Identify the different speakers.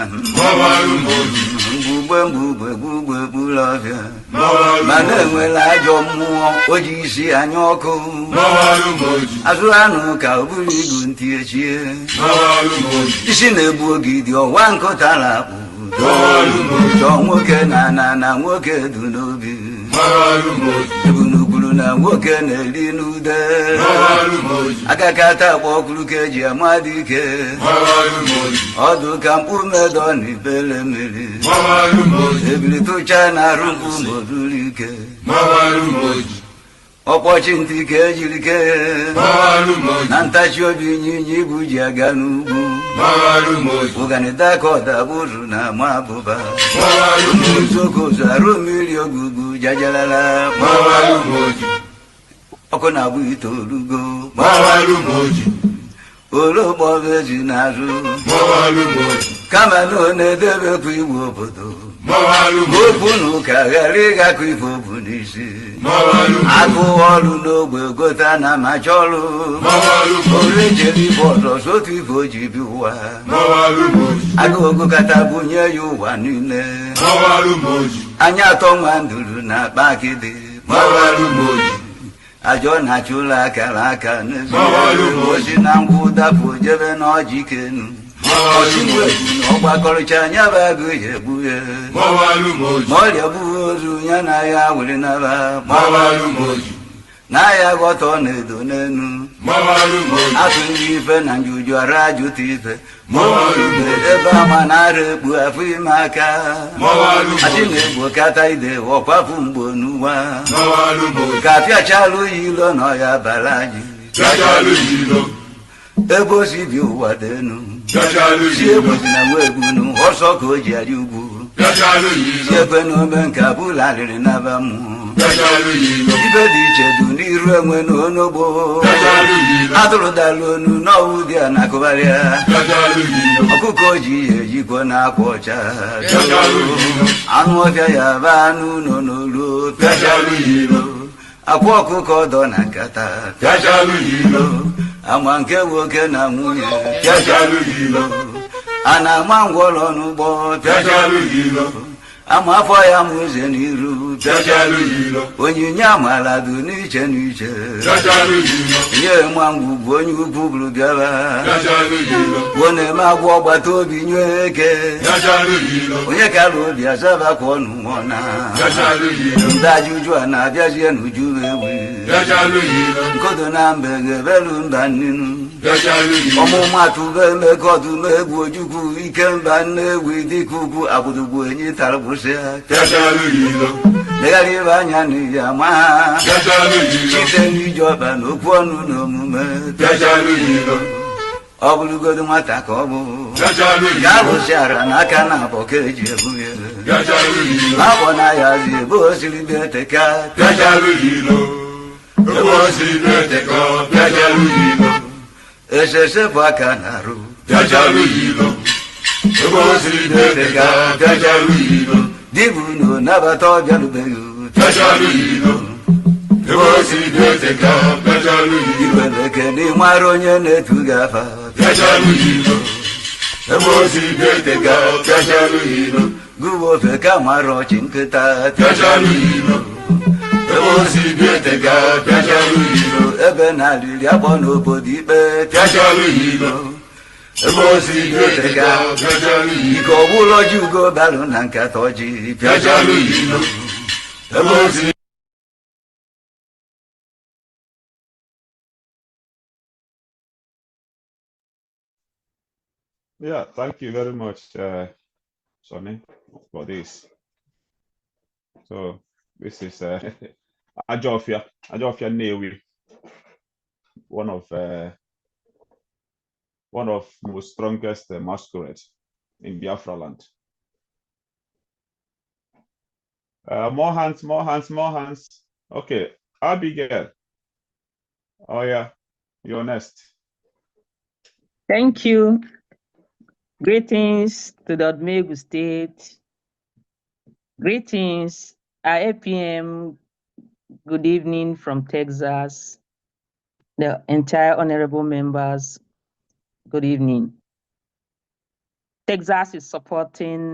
Speaker 1: gbawarụ m obi
Speaker 2: mgbugbe mgbugbe gbugbe gburu ọhịa
Speaker 1: gbawarụ m
Speaker 2: ma
Speaker 1: obi
Speaker 2: na-enwela ajọ mmụọ o ji isi anya ọkụ
Speaker 1: gbawarụ m obi
Speaker 2: azụ anụ ka o buru igu ntị echie
Speaker 1: gbawarụ m obi
Speaker 2: isi na-egbu ogidi ọwa nkụta na-akpụ
Speaker 1: gbawarụ m obi
Speaker 2: chọọ nwoke na na na nwoke du n'obi
Speaker 1: gbawarụ m obi
Speaker 2: ebunugwuru na nwoke na-eri n'ude
Speaker 1: gbawarụ m obi
Speaker 2: akakata akpa ọkụrụ ka eji ama dị ike
Speaker 1: gbawarụ m obi
Speaker 2: ọdụ ka mkpụ medọ na ibele mmiri
Speaker 1: gbawarụ m obi
Speaker 2: ebili tụcha na arụ mkpụ ma o duru ike
Speaker 1: gbawarụ m oji
Speaker 2: ọkpọchi ntị ka ejiri kee
Speaker 1: gbawarụ m oji
Speaker 2: na ntachi obi ịnyịnya ibu ji aga n'ugwu
Speaker 1: gbawarụ m oji
Speaker 2: ụganịta ka ọdabụrụ na ama abụba
Speaker 1: gbawarụ m oji
Speaker 2: uzokozu arụ mmiri ogugbu jajalala
Speaker 1: gbawarụ m oji
Speaker 2: ọkụ na-abụ itoolugo
Speaker 1: gbawarụ m oji
Speaker 2: ologboba ezi na-azụ
Speaker 1: gbawarụ m oji
Speaker 2: kama na ọ na-edebekwa iwu obodo
Speaker 1: gbawarụ m oji
Speaker 2: okwu na ụka ghara ịgakọ ife obu n'isi
Speaker 1: gbawarụ m oji
Speaker 2: agụ ọrụ n'ogbe gote na macha ọrụ
Speaker 1: gbawarụ m oji
Speaker 2: ore jere ibe ọzọ sotu ife o ji bi ụwa
Speaker 1: gbawarụ m oji
Speaker 2: agụ ogokata bunye ya ụwa niile
Speaker 1: gbawarụ m oji
Speaker 2: anya atọ nwa nduru na akpa akịdị
Speaker 1: gbawarụ m oji
Speaker 2: ajọ na-achụ ụlọ akara aka
Speaker 1: Gbawarụ m oji.
Speaker 2: n'ezi na ngwa ụdapụ jebe na ọjị kenu
Speaker 1: gbawarụ m oji
Speaker 2: ọgbakọrịcha anya bụ agụ ya egbu ya
Speaker 1: gbawarụ m oji
Speaker 2: ma ọrịa bụghị ozu ya na ya were naba
Speaker 1: gbawarụ m oji
Speaker 2: na ya ghọtọ na-edo n'enu
Speaker 1: gbawarụ m oji
Speaker 2: atụghị ife na njuju ara jụta ife
Speaker 1: Gbawarụ m oji.
Speaker 2: ebe ama na ara ekpu afọ ime aka
Speaker 1: Gbawarụ m oji.
Speaker 2: achị na-egbo kata ide ọkwapụ mgbo n'ụwa
Speaker 1: gbawarụ m oji
Speaker 2: ka apịachala oyi ilo na ọya bara anyị
Speaker 1: gachalụ jilo
Speaker 2: ebe o si bi ụwa dị enu
Speaker 1: gachalụ
Speaker 2: si
Speaker 1: jilo
Speaker 2: egbozi na nwa egwunu ọsọ ka o ji arị ugwu
Speaker 1: gachalụ
Speaker 2: si
Speaker 1: jilo
Speaker 2: ekwe na ome nke abụlarịrị naba mmụọ
Speaker 1: gachalụ jilo
Speaker 2: ibe dị iche dị n'iru enwe na onogbo
Speaker 1: gachalụ jilo
Speaker 2: atụrụdala onu n'ọwụ dị a na-akụgharịa
Speaker 1: gachalụ jilo
Speaker 2: ọkụkọ ji ya ejikwa na akwa ọcha
Speaker 1: gachalụ jilo
Speaker 2: anụ ọbịa ya ba anụ ụlọ n'olu
Speaker 1: Gachalụ jilo.
Speaker 2: akwa ọkụkọ dọ na nkata
Speaker 1: gachalụ jilo
Speaker 2: ama nke nwoke na nwunye
Speaker 1: gachalụ jilo
Speaker 2: a na-ama ngwọrọ n'ụgbọ
Speaker 1: gachalụ jilo
Speaker 2: ama afọ ya ma ụzọ n'iru
Speaker 1: gachalụ jilo
Speaker 2: onyinye amaala dị n'iche n'iche
Speaker 1: gachalụ jilo
Speaker 2: nye mangwu bụ onye ukwu bụrụ bịara
Speaker 1: gachalụ jilo
Speaker 2: ọ na-eme agwọ ọgbata obi nye eke
Speaker 1: gachalụ jilo
Speaker 2: onye kara obi azabakwa ọnụ nwọna
Speaker 1: gachalụ jilo
Speaker 2: ndị ajụjụ a na-abịazie n'uju ewi
Speaker 1: gachalụ jilo
Speaker 2: nkodo na mbe ga-ebelu mba nnenu
Speaker 1: gachalụ jilo
Speaker 2: ọmụmatụ be emeka ọdụm egwu ojukwu ike mba nne egwu dịka ugwu agbụdogbu enyi tara gbụsịa
Speaker 1: gachalụ jilo
Speaker 2: legharị ebe anya n'iyi ama ha
Speaker 1: gachalụ jilo
Speaker 2: site n'iji ọba na okwu ọnụ na omume
Speaker 1: gachalụ jilo
Speaker 2: ọ bụrụgodo nwata ka ọ bụ
Speaker 1: gachalụ
Speaker 2: ga
Speaker 1: jilo
Speaker 2: arụsịara n'aka na abọ ka eji ebu ya
Speaker 1: gachalụ jilo
Speaker 2: Abọ na ya zi ebe o siri bịa teka
Speaker 1: gachalụ jilo ebe o si na-eteka gachalụ jilo
Speaker 2: esese bụ aka na-arụ
Speaker 1: gachalụ jilo ebe o si na-eteka gachalụ jilo
Speaker 2: dibụ na onabata ọbịarubeghị
Speaker 1: gachalụ jilo ebe o si na-eteka gachalụ jilo
Speaker 2: iwelekene ịmara onye na-etu gị afa
Speaker 1: gachalụ jilo ebe o si na-eteka gachalụ jilo
Speaker 2: gụwa ofe ka mara ọchị nkịta
Speaker 1: gachalụ jilo ebe o si na-eteka gachalụ jilo
Speaker 2: ebe na aliri akpọ n'obodo ikpe
Speaker 1: gachalụ jilo ebe o si na-eteka gachalụ jilo
Speaker 2: ike ọbụla ọjị ugo balụ na nkata ọjị
Speaker 1: gachalụ jilo ebe o si
Speaker 3: Yeah, thank you very much, uh, Sonny, for this. So this is uh, Ajofia, Ajofia Newi, one of uh, one of most strongest uh, masquerade in Biafra land. Uh, more hands, more hands, more hands. Okay, Abigail. Oh yeah, you're next.
Speaker 4: Thank you. Greetings to the Odumegu State. Greetings, IAPM. Good evening from Texas. The entire honorable members, good evening. Texas is supporting